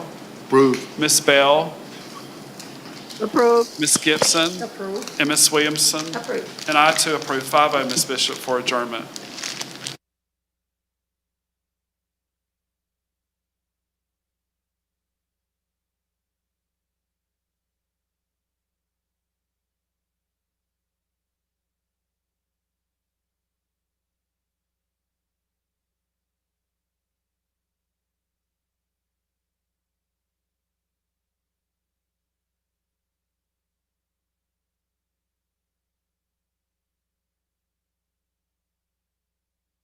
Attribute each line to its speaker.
Speaker 1: Approved.
Speaker 2: Ms. Bell,
Speaker 3: Approved.
Speaker 2: Ms. Gibson,
Speaker 3: Approved.
Speaker 2: and Ms. Williamson.
Speaker 3: Approved.
Speaker 2: And I too approve 5-0, Ms. oh, Bishop, for adjournment.